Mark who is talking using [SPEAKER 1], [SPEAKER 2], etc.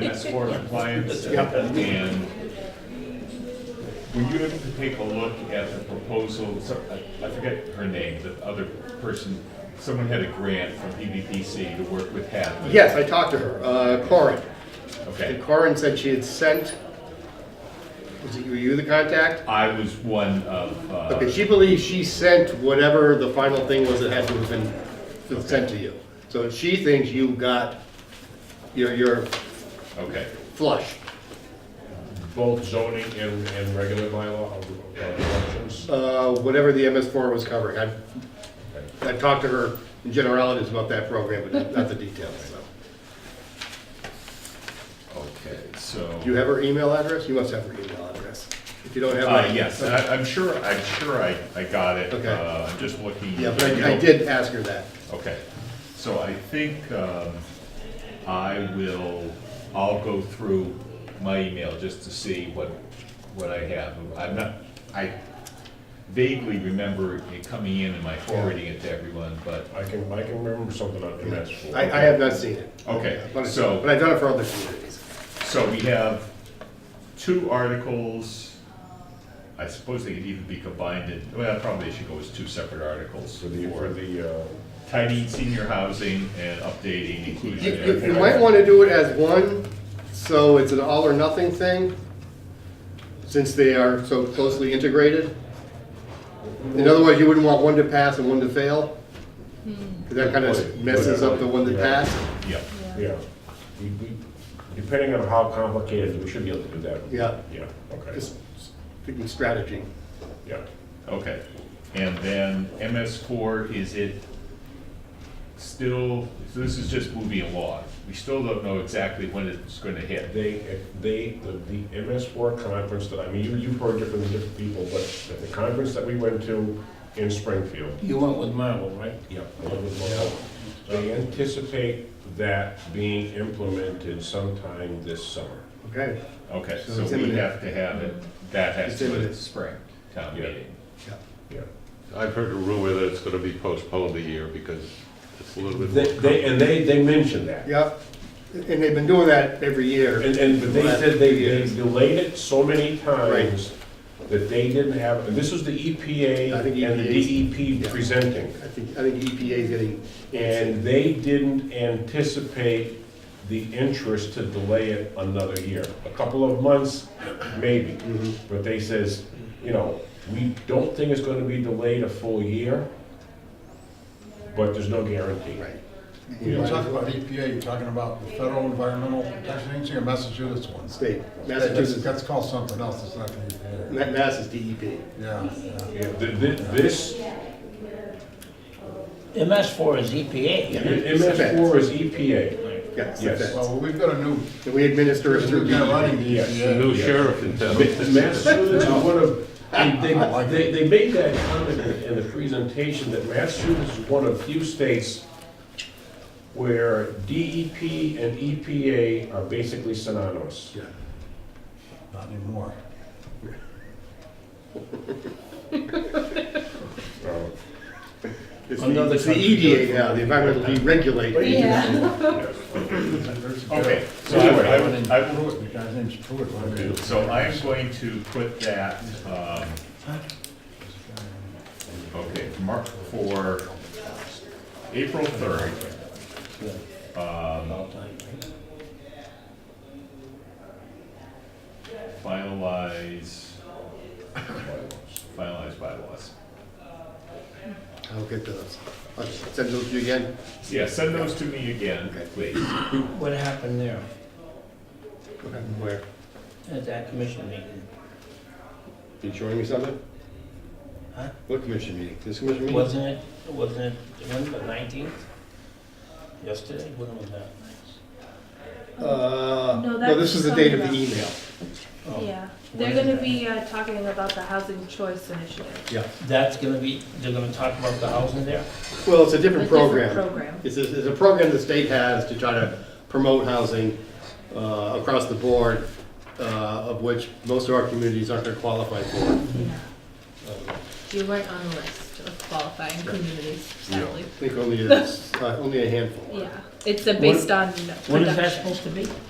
[SPEAKER 1] MS four compliance.
[SPEAKER 2] Yep.
[SPEAKER 1] And when you have to take a look at the proposal, so, I- I forget her name, the other person, someone had a grant from E PVPC to work with Hadley.
[SPEAKER 2] Yes, I talked to her, uh, Corin. And
[SPEAKER 1] Okay,
[SPEAKER 2] Corin said she had sent, was it, were you the contact?
[SPEAKER 1] I was one of,
[SPEAKER 2] Okay,
[SPEAKER 1] uh,
[SPEAKER 2] she believes she sent whatever the final thing was that had to have been sent to you. So she thinks you got your, your
[SPEAKER 1] okay,
[SPEAKER 2] flush.
[SPEAKER 3] both zoning and, and regular bylaw uh, elections.
[SPEAKER 2] Uh, whatever the MS4 was covering. I, I talked to her in generalities about that program, but not- not the details, so.
[SPEAKER 1] okay, so.
[SPEAKER 2] Do you have her email address? You must have her email address. If you don't have.
[SPEAKER 1] Uh,
[SPEAKER 2] mine-
[SPEAKER 1] yes, and I, I'm sure, I'm sure I, I got it.
[SPEAKER 2] Okay.
[SPEAKER 1] Uh, I'm just looking.
[SPEAKER 2] Yeah, but
[SPEAKER 1] you
[SPEAKER 2] I, I
[SPEAKER 1] know,
[SPEAKER 2] did ask her that.
[SPEAKER 1] Okay, so I think um, I will, I'll go through my email just to see what, what I have. I'm not, I vaguely remember it coming in and my forwarding it to everyone, but,
[SPEAKER 3] I can, I can remember something on MS four.
[SPEAKER 2] I, I have not seen it.
[SPEAKER 1] okay,
[SPEAKER 2] But I- But
[SPEAKER 1] so,
[SPEAKER 2] I've done it for other communities.
[SPEAKER 1] so we have two articles. I suppose they could even be combined in, well, probably should go as two separate articles.
[SPEAKER 3] For the, for the, uh,
[SPEAKER 1] Tidy senior housing and updating
[SPEAKER 2] You,
[SPEAKER 1] inclusionary.
[SPEAKER 2] you- you might wanna do it as one, so it's an all or nothing thing, since they are so closely integrated. In other words, you wouldn't want one to pass and one to fail. 'cause that kinda messes up the one that passed.
[SPEAKER 1] Yeah.
[SPEAKER 3] yeah. We- we- Depending on how complicated, we should be able to do that.
[SPEAKER 2] Yeah.
[SPEAKER 3] Yeah, okay,
[SPEAKER 2] Just thinking strategy.
[SPEAKER 3] yeah.
[SPEAKER 1] Okay, and then MS four, is it still, so this is just moving along. We still don't know exactly when it's gonna hit.
[SPEAKER 3] They, they, the, the MS four conference that, I mean, you, you've heard it from the different people, but at the conference that we went to in Springfield,
[SPEAKER 4] You went with Marvel, right?
[SPEAKER 3] Yeah, along with Mohawk. They anticipate that being implemented sometime this summer.
[SPEAKER 2] Okay.
[SPEAKER 1] Okay,
[SPEAKER 2] So
[SPEAKER 1] so
[SPEAKER 2] it's
[SPEAKER 1] we
[SPEAKER 2] imminent.
[SPEAKER 1] have to have it, that has
[SPEAKER 2] It's
[SPEAKER 1] to be
[SPEAKER 2] imminent.
[SPEAKER 1] spring town
[SPEAKER 3] Yeah.
[SPEAKER 1] meeting.
[SPEAKER 3] Yeah.
[SPEAKER 5] I've heard a rumor that it's gonna be postponed a year because it's a little bit.
[SPEAKER 3] They, they- and they, they mentioned that.
[SPEAKER 2] Yep, and they've been doing that every year.
[SPEAKER 3] And, and, but they
[SPEAKER 2] Last
[SPEAKER 3] said they,
[SPEAKER 2] few
[SPEAKER 3] they
[SPEAKER 2] years.
[SPEAKER 3] delayed it so many
[SPEAKER 2] Right.
[SPEAKER 3] times that they didn't have, and this is the EPA
[SPEAKER 2] I think E
[SPEAKER 3] and
[SPEAKER 2] EPA 's
[SPEAKER 3] the
[SPEAKER 2] yeah.
[SPEAKER 3] DEP presenting.
[SPEAKER 2] I think, I think EPA is getting,
[SPEAKER 3] And they didn't anticipate the interest to delay it another year. A couple of months, maybe.
[SPEAKER 2] Mm-hmm.
[SPEAKER 3] But they says, you know, we don't think it's gonna be delayed a full year, but there's no guarantee.
[SPEAKER 2] right.
[SPEAKER 6] When you talk about E EPA, you're talking about the Federal Environmental Protection Agency or Massachusetts one?
[SPEAKER 2] State,
[SPEAKER 6] That's-
[SPEAKER 2] Massachusetts,
[SPEAKER 6] That's called something else, it's not the EPA.
[SPEAKER 2] Ma- Mass is E DEP.
[SPEAKER 6] Yeah, yeah.
[SPEAKER 3] Yeah, th- th- This,
[SPEAKER 4] MS four is E EPA.
[SPEAKER 3] MS four is E EPA.
[SPEAKER 2] Yes,
[SPEAKER 3] Yes.
[SPEAKER 2] that's it.
[SPEAKER 6] Well, we've got a new,
[SPEAKER 2] And we administer it
[SPEAKER 6] there's a
[SPEAKER 2] through E
[SPEAKER 6] new guy
[SPEAKER 2] DEP.
[SPEAKER 1] E
[SPEAKER 6] running the
[SPEAKER 3] Yes.
[SPEAKER 5] The
[SPEAKER 6] EPA.
[SPEAKER 5] new sheriff in town.
[SPEAKER 3] Massachusetts is one of,
[SPEAKER 6] I like
[SPEAKER 3] they, they, they made that comment in- in the presentation that Massachusetts is one of few states where DEP and EPA are basically synonymous.
[SPEAKER 2] Yeah.
[SPEAKER 6] Not anymore.
[SPEAKER 3] Um,
[SPEAKER 2] It's
[SPEAKER 4] Another
[SPEAKER 2] the, it's the
[SPEAKER 4] country
[SPEAKER 2] EDA now, the environmental deregulate. E
[SPEAKER 7] Yeah.
[SPEAKER 1] Okay, so
[SPEAKER 3] Anyway,
[SPEAKER 1] I would, I would,
[SPEAKER 6] Pruitt, the guy's name's Pruitt. right?
[SPEAKER 1] so I'm going to put that, um, okay, mark for April third. Um,
[SPEAKER 4] All time, right?
[SPEAKER 1] finalize, finalize bylaws.
[SPEAKER 2] I'll get those. I'll send those to you again.
[SPEAKER 1] Yeah, send those to me again,
[SPEAKER 2] Okay.
[SPEAKER 1] please.
[SPEAKER 4] What happened there
[SPEAKER 2] Where?
[SPEAKER 4] at that commission meeting?
[SPEAKER 2] You showing me something?
[SPEAKER 4] Huh?
[SPEAKER 2] What commission meeting? This commission meeting?
[SPEAKER 4] Wasn't it, wasn't it, when, the nineteenth? Yesterday, when was that?
[SPEAKER 2] Uh,
[SPEAKER 7] No,
[SPEAKER 2] no, this
[SPEAKER 7] that's
[SPEAKER 2] is the date of the
[SPEAKER 7] something else.
[SPEAKER 2] email.
[SPEAKER 4] Oh,
[SPEAKER 7] Yeah,
[SPEAKER 4] What
[SPEAKER 7] they're
[SPEAKER 4] is
[SPEAKER 7] gonna
[SPEAKER 4] that?
[SPEAKER 7] be uh, talking about the housing choice initiative.
[SPEAKER 2] Yeah.
[SPEAKER 4] That's gonna be, they're gonna talk about the housing there?
[SPEAKER 2] Well, it's a
[SPEAKER 7] A
[SPEAKER 2] different
[SPEAKER 7] different
[SPEAKER 2] program.
[SPEAKER 7] program.
[SPEAKER 2] It's a, it's a program the state has to try to promote housing uh, across the board, uh, of which most of our communities aren't going to qualify for.
[SPEAKER 7] Yeah.
[SPEAKER 2] Uh,
[SPEAKER 7] You weren't on the list of qualifying communities, sadly.
[SPEAKER 2] I think only, is- uh, only a handful.
[SPEAKER 7] Yeah, it's uh, based on
[SPEAKER 4] What is that
[SPEAKER 7] production.
[SPEAKER 4] supposed to be?